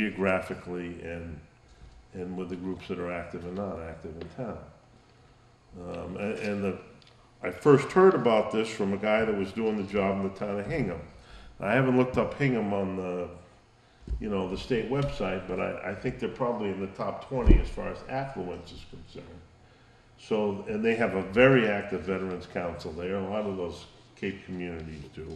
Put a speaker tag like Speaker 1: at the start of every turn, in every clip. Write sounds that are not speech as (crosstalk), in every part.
Speaker 1: geographically and, and with the groups that are active and not active in town. Um, and, and the, I first heard about this from a guy that was doing the job in the town of Hingham. I haven't looked up Hingham on the, you know, the state website, but I, I think they're probably in the top twenty as far as affluence is concerned. So, and they have a very active Veterans Council there, a lot of those Cape communities do.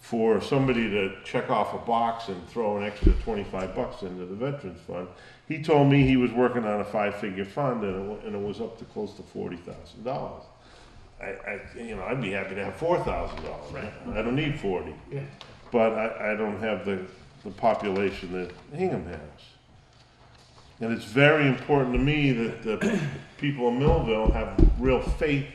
Speaker 1: For somebody to check off a box and throw an extra twenty-five bucks into the Veterans Fund, he told me he was working on a five-figure fund and it, wa- and it was up to close to forty thousand dollars. I, I, you know, I'd be happy to have four thousand dollars, I don't need forty.
Speaker 2: Yeah.
Speaker 1: But I, I don't have the, the population that Hingham has. And it's very important to me that the people in Millville have real faith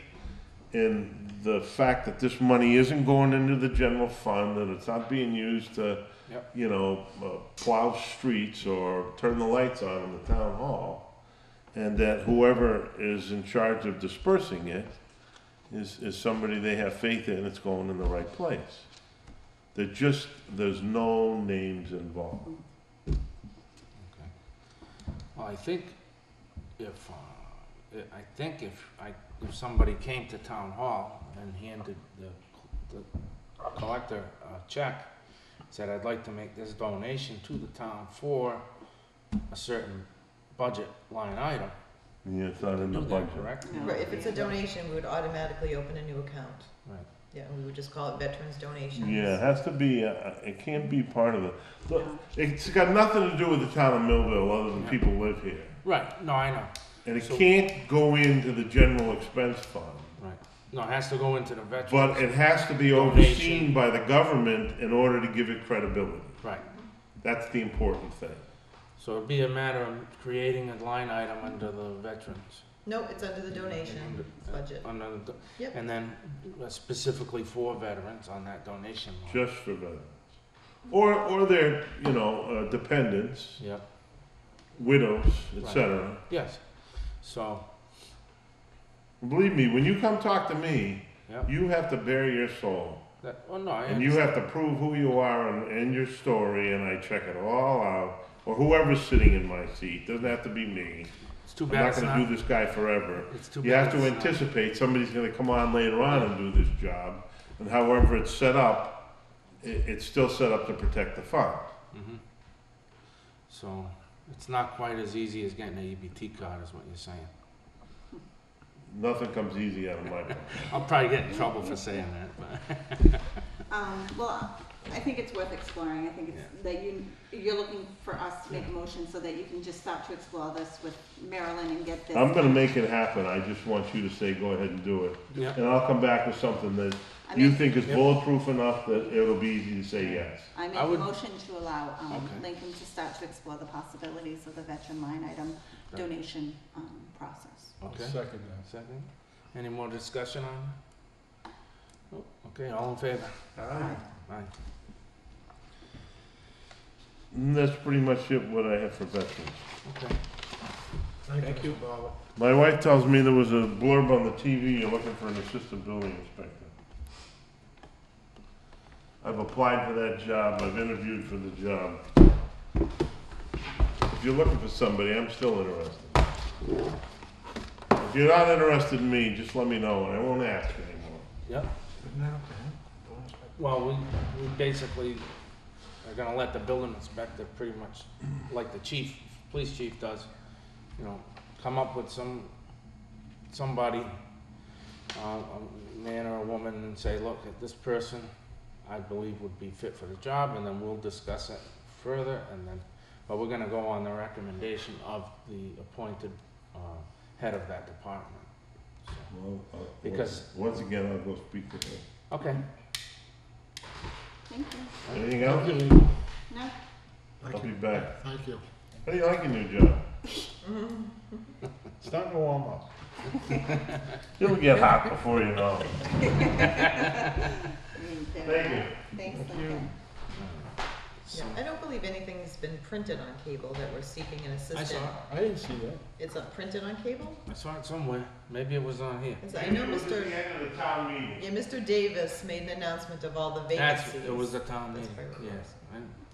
Speaker 1: in the fact that this money isn't going into the general fund, that it's not being used to,
Speaker 2: Yep.
Speaker 1: you know, uh, plow streets or turn the lights on in the town hall. And that whoever is in charge of dispersing it is, is somebody they have faith in, it's going in the right place. They're just, there's no names involved.
Speaker 2: Well, I think if, uh, I- I think if I, if somebody came to town hall and handed the, the collector a check, said, I'd like to make this donation to the town for a certain budget line item.
Speaker 1: Yeah, it's not in the
Speaker 2: Do that,
Speaker 1: budget.
Speaker 2: Correct?
Speaker 3: Right, if it's a donation, we would automatically open a new account.
Speaker 2: Right.
Speaker 3: Yeah, and we would just call it veterans donations.
Speaker 1: Yeah, it has to be, uh, it can't be part of the, look, it's got nothing to do with the town of Millville, other than
Speaker 2: Yeah.
Speaker 1: people live here.
Speaker 2: Right, no, I know,
Speaker 1: And it
Speaker 2: So-
Speaker 1: can't go into the general expense fund,
Speaker 2: right. No, it has to go into the veterans.
Speaker 1: but it has to be overseen by the government in order to give it credibility.
Speaker 2: Right,
Speaker 1: That's the important thing.
Speaker 2: so it'd be a matter of creating a line item under the veterans.
Speaker 3: No, it's under the donation
Speaker 2: Under-
Speaker 3: budget.
Speaker 2: under the do-
Speaker 3: Yep.
Speaker 2: And then uh, specifically for veterans on that donation line.
Speaker 1: just for veterans. Or, or their, you know, uh, dependents,
Speaker 2: Yep,
Speaker 1: widows, etc.
Speaker 2: yes. So,
Speaker 1: Believe me, when you come talk to me,
Speaker 2: Yep.
Speaker 1: you have to bare your soul.
Speaker 2: that, oh no, I
Speaker 1: And you
Speaker 2: understand.
Speaker 1: have to prove who you are and, and your story, and I check it all out. Or whoever's sitting in my seat, doesn't have to be me.
Speaker 2: It's too
Speaker 1: I'm
Speaker 2: bad
Speaker 1: not
Speaker 2: it's
Speaker 1: gonna do
Speaker 2: not,
Speaker 1: this guy forever.
Speaker 2: it's too bad.
Speaker 1: You have to
Speaker 2: it's not-
Speaker 1: anticipate somebody's gonna come on later on and do this job. And however it's set up, it, it's still set up to protect the fund.
Speaker 2: Mhm. So, it's not quite as easy as getting an EBT card is what you're saying.
Speaker 1: Nothing comes easy out of my pocket.
Speaker 2: I'll probably get in trouble for saying that, but, (laughs)
Speaker 4: Um, well, I think it's worth exploring. I think it's that you, you're looking for us to make a motion so that you can just start to explore this with Marilyn and get this.
Speaker 1: I'm gonna make it happen, I just want you to say, go ahead and do it.
Speaker 2: yeah.
Speaker 1: And I'll come back with something that
Speaker 4: I
Speaker 1: you
Speaker 4: make-
Speaker 1: think is
Speaker 2: Yep.
Speaker 1: bulletproof enough that it'll be easy to say yes.
Speaker 4: I make
Speaker 2: I
Speaker 4: a
Speaker 2: would-
Speaker 4: motion to allow, um,
Speaker 2: Okay.
Speaker 4: Lincoln to start to explore the possibilities of the veteran line item
Speaker 2: Right.
Speaker 4: donation, um, process.
Speaker 2: Okay.
Speaker 5: Second
Speaker 2: Second, any more discussion on? it? Oh, Okay, all in favor? Aye.
Speaker 1: And that's pretty much it, what I have for veterans.
Speaker 2: Okay,
Speaker 5: that. Thank you, Bob.
Speaker 1: My wife tells me there was a blurb on the TV, you're looking for an assistant building inspector. I've applied for that job, I've interviewed for the job. If you're looking for somebody, I'm still interested. If you're not interested in me, just let me know and I won't ask anymore.
Speaker 2: yep. Well, we, we basically are gonna let the building inspector pretty much, like the chief, police chief does, you know, come up with some, somebody, uh, a man or a woman and say, look, this person I believe would be fit for the job, and then we'll discuss it further, and then, but we're gonna go on the recommendation of the appointed, uh, head of that department, so.
Speaker 1: Well, I'll-
Speaker 2: Because-
Speaker 1: Once again, I'll go speak to her.
Speaker 2: Okay.
Speaker 4: Thank you.
Speaker 1: Anything else?
Speaker 4: No,
Speaker 1: I'll be back.
Speaker 5: Thank you.
Speaker 1: How do you like your new job? (laughs)
Speaker 5: It's starting to warm up.
Speaker 1: It'll get hot before you know it.
Speaker 4: I mean, there-
Speaker 1: Thank you.
Speaker 4: Thanks, Lincoln.
Speaker 3: Yeah, I don't believe anything's been printed on cable that we're seeking an
Speaker 2: I saw
Speaker 3: assistant.
Speaker 2: it.
Speaker 5: I didn't see that.
Speaker 3: It's not printed on cable?
Speaker 2: I saw it somewhere. Maybe it was on here.
Speaker 3: It's- I know
Speaker 1: It was at
Speaker 3: Mr.,
Speaker 1: the end of the town meeting.
Speaker 3: yeah, Mr. Davis made an announcement of all the
Speaker 2: That's
Speaker 3: vacancies.
Speaker 2: it was the town
Speaker 3: That's
Speaker 2: meeting.
Speaker 3: probably what it
Speaker 2: Yes. I-